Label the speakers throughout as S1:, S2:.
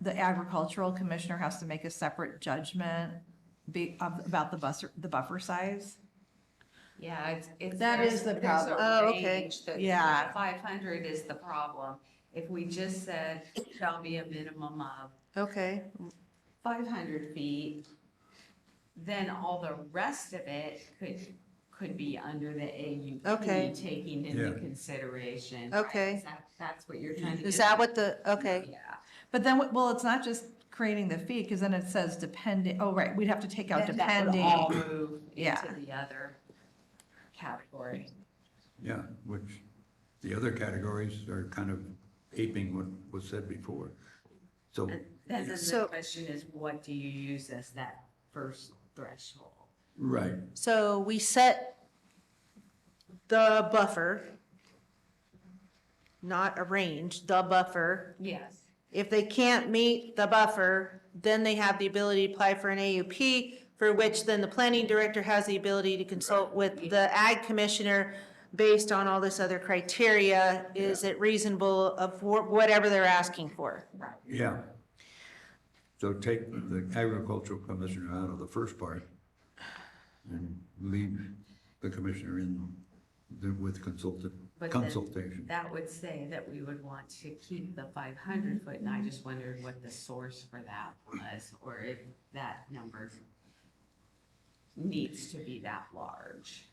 S1: the agricultural commissioner has to make a separate judgment be, of, about the buffer, the buffer size.
S2: Yeah, it's, it's.
S3: That
S2: there's-
S3: is the
S2: there's
S3: problem.
S2: a
S3: Oh, okay.
S2: range that-
S1: Yeah.
S2: Five hundred is the problem. If we just said shall be a minimum of
S3: Okay,
S2: five hundred feet, then all the rest of it could, could be under the AUP.
S3: Okay.
S2: Taking into
S4: Yeah.
S2: consideration. right?
S3: Okay.
S2: Is that- That's what you're trying to.
S3: is
S2: get
S3: that
S2: at?
S3: what the, okay,
S2: Yeah.
S1: But then, what- well, it's not just creating the fee, because then it says depending, oh, right, we'd have to take out
S2: Then that would all
S1: depending.
S2: move
S1: Yeah.
S2: into the other category.
S4: Yeah, which the other categories are kind of aping what was said before. So,
S2: And then the
S3: So-
S2: question is, what do you use as that first threshold?
S4: right,
S3: so we set the buffer, not a range, the buffer.
S2: Yes.
S3: If they can't meet the buffer, then they have the ability to apply for an AUP, for which then the planning director has the ability to consult with the ag commissioner based on all this other criteria. Is it reasonable of wh- whatever they're asking for?
S2: Right.
S4: yeah. So take the agricultural commissioner out of the first part and leave the commissioner in the- with consulted,
S2: But then-
S4: consultation.
S2: That would say that we would want to keep the five hundred foot, and I just wondered what the source for that was, or if that number needs to be that large.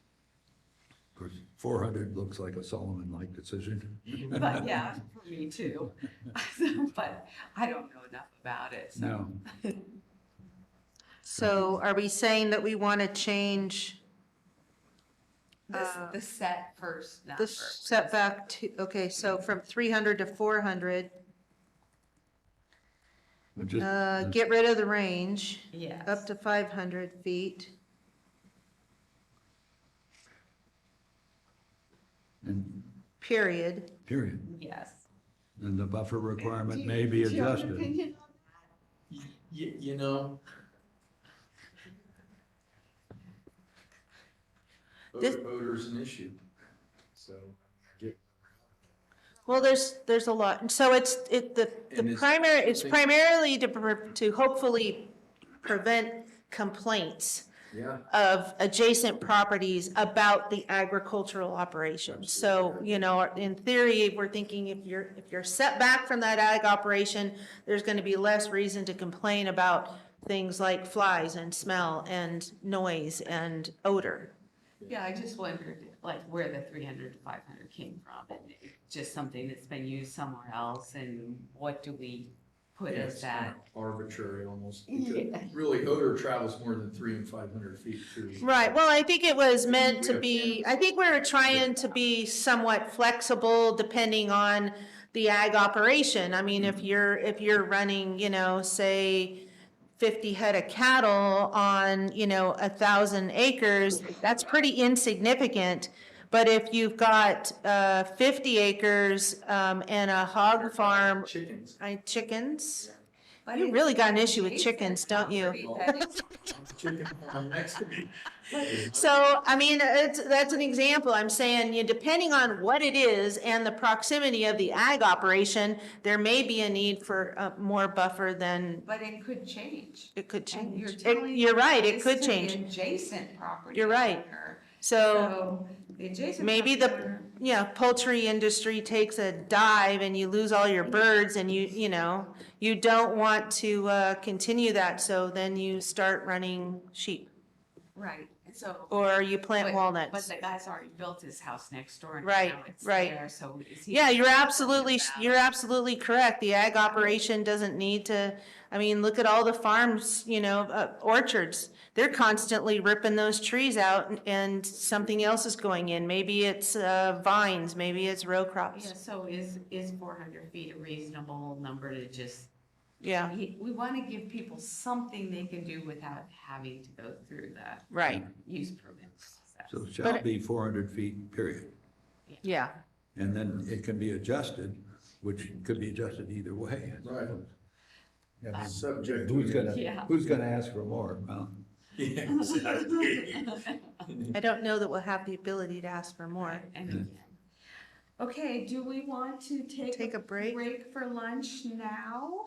S4: Of course, four hundred looks like a Solomon-like decision.
S2: But yeah, for me too. But I don't know enough about it, so.
S4: No,
S3: So are we saying that we want to change
S2: This,
S3: Uh,
S2: the set first number.
S3: the setback to, okay, so from three hundred to four hundred?
S4: but just-
S3: Uh, get rid of the range,
S2: Yes.
S3: up to five hundred feet.
S4: and
S3: period.
S4: period.
S2: Yes.
S4: And the buffer requirement
S2: Do
S4: may
S2: you-
S4: be
S2: do you have an
S4: adjusted.
S2: opinion on
S5: Y- y- you know.
S3: This-
S5: Odor, odor's an issue, so. get-
S3: Well, there's, there's a lot, and so it's, it, the,
S5: And
S3: the
S5: it's-
S3: primary, it's primarily to, pre- to hopefully prevent complaints
S5: Yeah,
S3: of adjacent properties about the agricultural operation. So, you know, in theory, we're thinking if you're, if you're set back from that ag operation, there's gonna be less reason to complain about things like flies and smell and noise and odor.
S2: that? Yeah, I just wondered, like, where the three hundred to five hundred came from, and just something that's been used somewhere else, and what do we put
S5: yeah,
S2: as
S5: it's kind
S2: that?
S5: of arbitrary almost.
S2: Yeah.
S5: Really, odor travels more than three and five hundred feet through.
S3: Right, well, I think it was meant to be, I think we were trying to be somewhat flexible depending on the ag operation. I mean, if you're, if you're running, you know, say fifty head of cattle on, you know, a thousand acres, that's pretty insignificant. But if you've got, uh, fifty acres, um, and a hog farm,
S5: Chickens.
S3: I, chickens,
S2: But
S3: you
S2: it's
S3: really got an issue with
S2: adjacent
S3: chickens, don't you?
S2: property that
S5: Chicken farm next to me.
S3: So, I mean, it's, that's an example. I'm saying, you know, depending on what it is and the proximity of the ag operation, there may be a need for uh, more buffer than
S2: But it could change.
S3: it could
S2: And you're
S3: change. It-
S2: telling
S3: You're right,
S2: this
S3: it
S2: to
S3: could
S2: the
S3: change.
S2: Adjacent property.
S3: You're right.
S2: owner. So
S3: So
S2: the adjacent.
S3: maybe
S2: property
S3: the,
S2: owner-
S3: yeah, poultry industry takes a dive and you lose all your birds and you, you know, you don't want to uh, continue that, so then you start running sheep
S2: Right, and so.
S3: or you plant
S2: but-
S3: walnuts.
S2: But the guy's already built his house next door. and
S3: Right,
S2: now it's
S3: right.
S2: there, So is he?
S3: Yeah, you're absolutely,
S2: about-
S3: you're absolutely correct. The ag operation doesn't need to, I mean, look at all the farms, you know, uh, orchards. They're constantly ripping those trees out and- and something else is going in. Maybe it's uh, vines, maybe it's row
S2: Yeah,
S3: crops.
S2: so is, is four hundred feet a reasonable number to just,
S3: Yeah,
S2: we, we want to give people something they can do without having to go through the
S3: right,
S2: use permits.
S4: So shall
S3: But-
S4: be four hundred feet, period.
S3: yeah.
S4: And then it can be adjusted, which could be adjusted either way.
S5: Right.
S4: I mean,
S5: Uh, Subject. to-
S4: Who's
S2: Yeah.
S4: gonna, who's gonna ask for more? Well,
S5: Yeah, exactly.
S3: I don't know that we'll have the ability to ask for more.
S2: And again. Okay, do we want to take?
S3: Take a break?
S2: Break for lunch now?